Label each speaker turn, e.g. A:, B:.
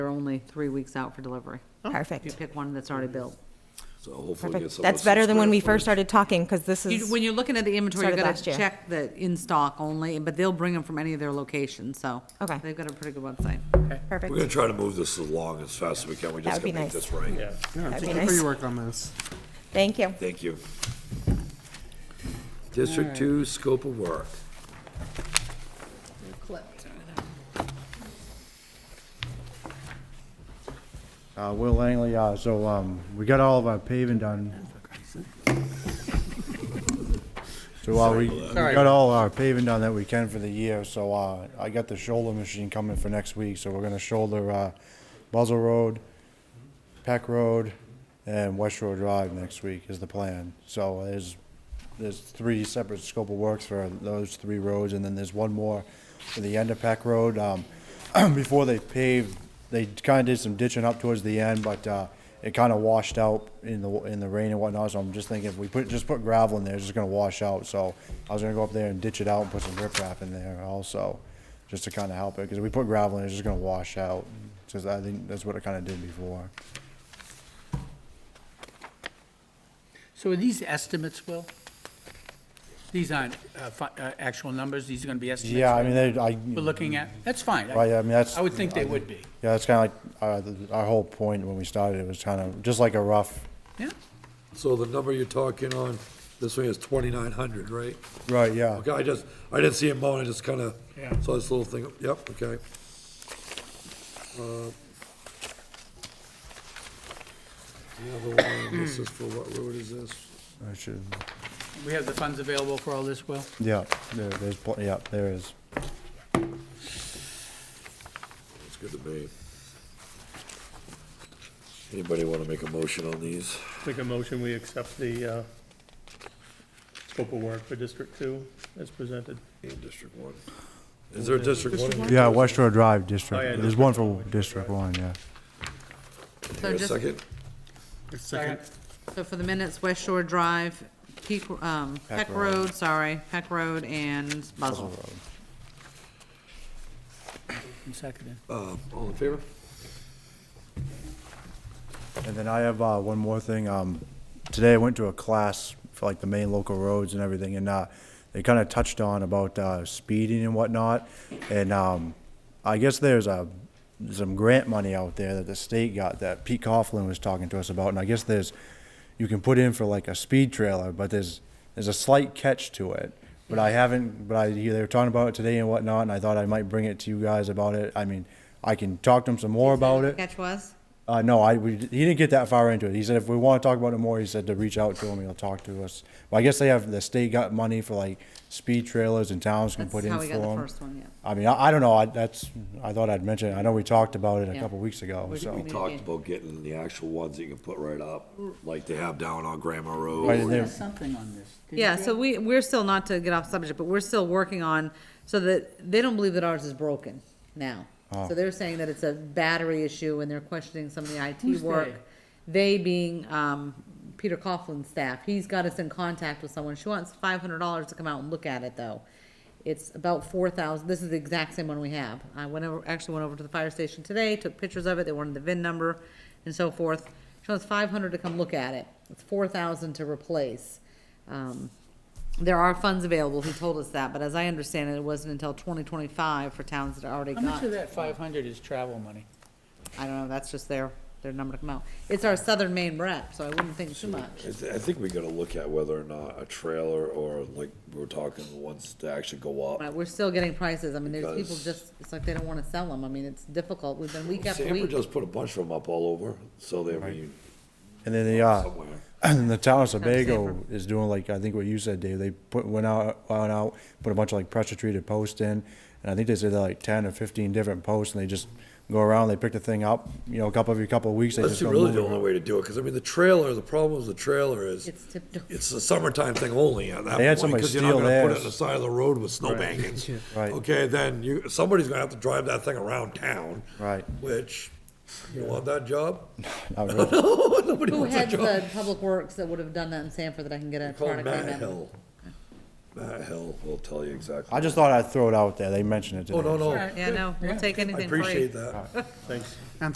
A: They're only three weeks out for delivery. You
B: Perfect.
A: pick one that's already built.
C: So hopefully it gets
B: Perfect.
C: a
B: That's
C: little
B: better than when we
C: square
B: first started talking, because this
A: You-
B: is,
A: When you're looking at the inventory, you
B: Started
A: gotta
B: last year.
A: check the in-stock only, but they'll bring them from any of their locations, so.
B: Okay.
A: They've got a pretty good website.
C: footage. We're gonna
B: perfect.
C: try to move this along as fast as we can, we just
B: That would
C: gotta
B: be nice.
C: make this right.
D: Yeah,
B: That'd be
D: thank you for
B: nice.
D: your work on this.
B: Thank you.
C: Thank you. District two, scope of work.
E: Uh, Will Langley, uh, so, um, we got all of our paving done. So, uh, we, we got all our paving done that we can for the year, so, uh, I got the shoulder machine coming for next week, so we're gonna shoulder, uh, Buzzell Road, Peck Road, and West Road Drive next week is the plan. So, there's, there's three separate scope of works for those three roads, and then there's one more for the end of Peck Road. Um, before they paved, they kinda did some ditching up towards the end, but, uh, it kinda washed out in the, in the rain and whatnot, so I'm just thinking if we put, just put gravel in there, it's just gonna wash out, so I was gonna go up there and ditch it out and put some riprap in there also, just to kinda help it, cause if we put gravel in, it's just gonna wash out, cause I think that's what it kinda did before.
F: So are these estimates, Will? These aren't uh, fi- uh, actual numbers, these are going to be estimates?
E: Yeah, I mean, they, I.
F: We're looking at, that's fine.
E: Right, I mean, that's-
F: I would think they would be,
E: Yeah, that's kinda like, uh, the- our whole point when we started, it was kinda, just like a rough,
F: yeah?
C: So the number you're talking on, this one is twenty-nine hundred, right?
E: right, yeah.
C: Okay, I just, I didn't see it mowing, I just kinda
F: Yeah.
C: saw this little thing, yep, okay. Uh, The other one, this is for, what road is this?
E: I should,
F: We have the funds available for all this, Will?
E: yeah, there, there's, pl- yeah, there is.
C: It's good to me. Anybody wanna make a motion on these?
G: Make a motion, we accept the uh, scope of work for District Two as presented.
C: In District One. Is there a District One?
E: Yeah, West Shore Drive
G: Oh, yeah,
E: District, there's one for District One, yeah.
A: So
C: Here, a
A: just,
C: second?
D: Second.
A: so for the minutes, West Shore Drive, Peak, um, Peck Road, sorry, Peck Road and Buzzell.
F: And seconded.
C: Uh, all in favor?
E: And then I have, uh, one more thing, um, today I went to a class for like the main local roads and everything, and, uh, they kinda touched on about, uh, speeding and whatnot, and, um, I guess there's a, some grant money out there that the state got that Pete Coughlin was talking to us about, and I guess there's, you can put in for like a speed trailer, but there's, there's a slight catch to it. But I haven't, but I, they were talking about it today and whatnot, and I thought I might bring it to you guys about it, I mean, I can talk to them some more about it.
A: Catch was?
E: Uh, no, I, we, he didn't get that far into it. He said if we want to talk about it more, he said to reach out to him, he'll talk to us. Well, I guess they have, the state got money for like speed trailers and towns can
A: That's
E: put in
A: how
E: for
A: we got the
E: them.
A: first one, yeah.
E: I mean, I, I don't know, I, that's, I thought I'd mention it. I know we talked about it a
A: Yeah.
E: couple weeks ago,
A: We-
E: so.
C: We talked about getting the actual ones that you can put right up, like they have down on Grandma
E: Right,
C: Road.
E: and
F: There's
E: there-
F: something on this. didn't
A: Yeah,
F: you?
A: so we, we're still, not to get off subject, but we're still working on, so that, they don't believe that ours is broken now. So they're saying that it's a battery issue and they're questioning some of the IT
F: Who's
A: work. They being, um, Peter Coughlin's staff, he's got us in contact with someone, she wants five hundred dollars to come out and look at it though. It's about four thousand, this is the exact same one we have. I went over, actually went over to the fire station today, took pictures of it, they wanted the VIN number and so forth. She wants five hundred to come look at it, it's four thousand to replace. Um, there are funds available, he told us that, but as I understand it, it wasn't until twenty twenty-five for towns that already
F: How
A: got.
F: much of that 500 is travel money?
A: I don't know, that's just their, their number to come out. It's our southern Maine rep, so I wouldn't think too much.
C: I th- I think we gotta look at whether or not a trailer or like we were talking, the ones that actually go up.
A: But we're still getting prices, I mean, there's people
C: Because-
A: just, it's like they don't wanna sell them, I mean, it's difficult, we've been week after
C: Sanford
A: week.
C: just put a bunch of them up all over, so they were
E: And then the, uh,
C: somewhere.
E: and the town of
A: safer.
E: Sebago is doing like, I think what you said, Dave, they put, went out, went out, put a bunch of like pressure treated posts in. And I think they said they're like ten or fifteen different posts and they just go around, they pick the thing up, you know, a couple, every couple of weeks, they
C: That's
E: just go
C: really
E: move
C: the
E: it.
C: only way to do it, because I mean, the trailer, the problem with the trailer is,
A: It's tipped over.
C: it's a summertime thing only at that
E: They had
C: point,
E: somebody
C: because you're not
E: steal
C: gonna put it
E: theirs.
C: on the side of the road with snow bankings.
E: Right.
C: Okay, then you, somebody's gonna have to drive that thing around town.
E: Right.
C: Which, you want that job?
E: Not really.
C: Nobody
A: Who
C: wants that
A: heads
C: job.
A: the public works that would've done that in Sanford that I can get a
C: Call
A: product
C: Matt
A: name
C: Hill. Matt Hill will tell you exactly.
E: I just thought I'd throw it out there. They mentioned it today.
C: Oh, no, no.
A: Yeah, no, we'll take
C: I
A: anything free.
C: appreciate that.
G: Thanks.